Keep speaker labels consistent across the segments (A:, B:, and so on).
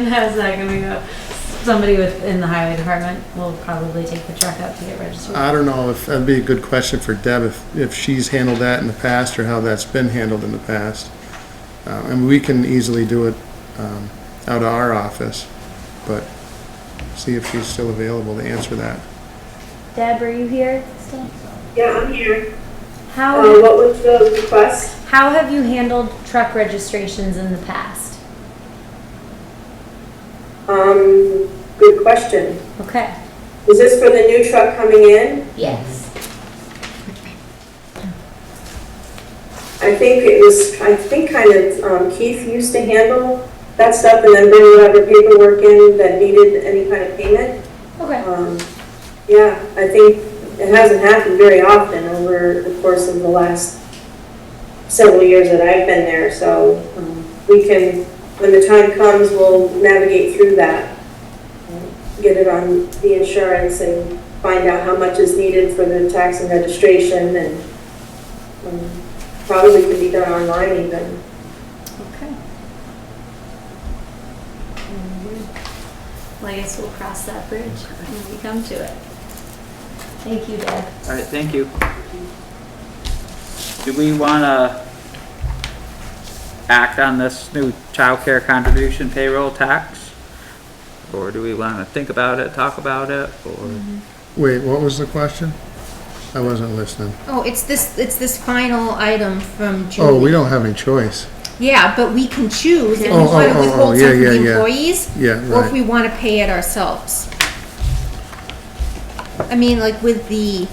A: How's that gonna
B: uh,
A: go? Somebody with, in the highway department will probably take the truck up to get registered.
C: I don't know if, that'd be a good question for Deb, if, if she's handled that in the past or how that's been handled in the past. Uh, and we can easily do it, um, out of our office, but see if she's still available to answer that.
D: Deb, are you here still?
E: Yeah, I'm here. Uh,
D: How,
E: what was the request?
D: how have you handled truck registrations in the past?
E: Um, good question.
D: Okay.
E: Is this for the new truck coming in?
D: Yes.
E: I think it was, I think kind of um, Keith used to handle that stuff and then bring whatever paperwork in that needed any kind of payment.
D: Okay.
E: Um, yeah, I think it hasn't happened very often over the course of the last several years that I've been there, so, um, we can, when the time comes, we'll navigate through that. um, Get it on the insurance and find out how much is needed for the tax and registration and, um, probably can be done online even.
D: Okay.
B: Mm-hmm. Well, I guess we'll cross that bridge when we come to it.
D: Thank you, Deb.
F: All right, thank you. Do we want to act on this new childcare contribution payroll tax? Or do we want to think about it, talk about it, or?
C: Wait, what was the question? I wasn't listening.
G: Oh, it's this, it's this final item from Julie.
C: Oh, we don't have any choice.
G: Yeah, but we can choose if we
C: Oh, oh,
G: want
C: oh,
G: to
C: oh,
G: withhold
C: yeah,
G: some from
C: yeah,
G: the
C: yeah.
G: employees.
C: Yeah,
G: Or if
C: right.
G: we want to pay it ourselves. I mean, like with the,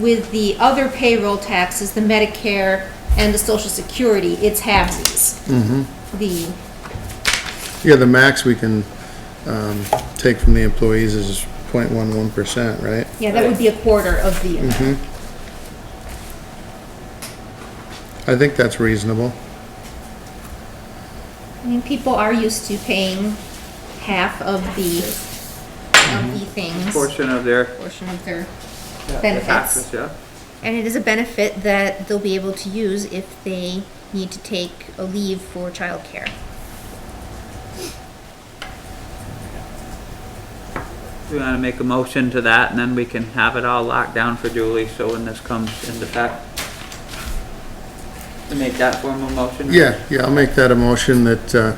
G: with the other payroll taxes, the Medicare and the social security, it's halvesies. The,
C: Mm-hmm. Yeah, the max we can, um, take from the employees is 0.11 percent, right?
G: yeah, that would be a quarter of the amount.
C: Mm-hmm. I think that's reasonable. Mm-hmm.
G: I mean, people are used to paying half of the, of the things,
F: Portion of their
G: portion of their
F: their
G: benefits.
F: taxes, yeah?
G: And it is a benefit that they'll be able to use if they need to take a leave for childcare.
F: Do we want to make a motion to that, and then we can have it all locked down for Julie, so when this comes into effect? To make that formal motion?
C: Yeah, yeah, I'll make that a motion that, uh,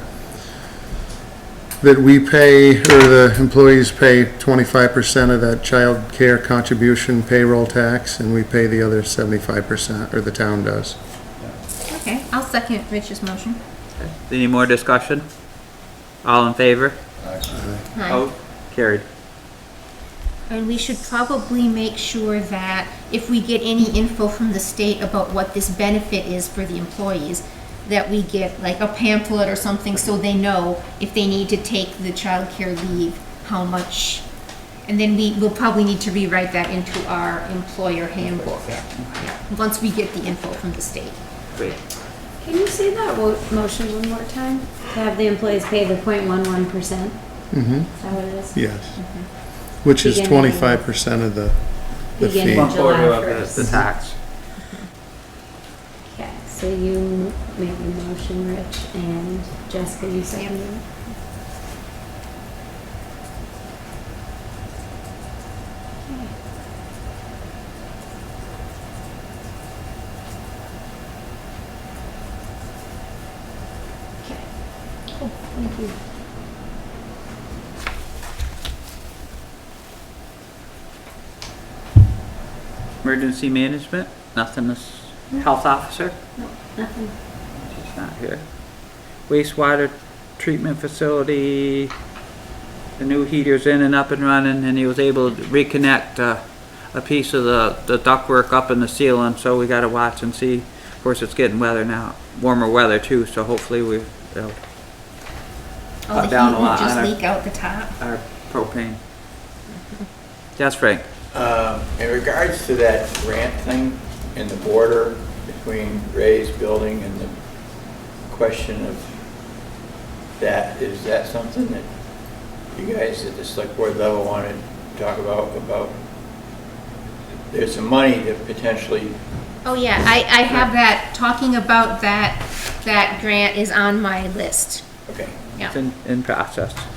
C: that we pay, or the employees pay twenty-five percent of that child care contribution payroll tax, and we pay the other seventy-five percent, or the town does.
G: Okay, I'll second Rich's motion.
F: Any more discussion? All in favor?
G: Hi.
F: Oh, Carried.
G: And we should probably make sure that if we get any info from the state about what this benefit is for the employees, that we get like a pamphlet or something so they know if they need to take the childcare leave, how much. And then we will probably need to rewrite that into our employer handbook, once we get the info from the state.
F: Great.
B: Can you say that wo- motion one more time?
A: To have the employees pay the 0.11 percent,
C: Mm-hmm,
A: is that what it is?
C: yes. Which is
A: Beginning.
C: twenty-five percent of the, the
A: Beginning.
C: fee.
F: One
A: July
F: quarter of the- the
A: 1st.
F: tax.
A: Okay, so you made the motion, Rich, and Jessica, you seconded it?
F: Emergency management, nothing is, health officer?
A: Nothing.
F: She's not here. Wastewater treatment facility, the new heater's in and up and running, and he was able to reconnect, uh, a piece of the, the ductwork up in the ceiling, so we gotta watch and see. Of course, it's getting weather now, warmer weather too, so hopefully we, uh,
G: All
F: Cut
G: the
F: down
G: heat
F: a
G: won't
F: lot on
G: Oh, just
F: our-
G: leak out the top.
F: our propane. Yes, Frank?
H: Um, In regards to that grant thing and the border between Ray's building and the question of that, is that something that you guys at the select board level want to talk about, about? There's some money that potentially,
G: Oh, yeah, I, I have that, talking about that, that grant is on my list.
H: okay.
G: Yeah.
F: It's in, in process.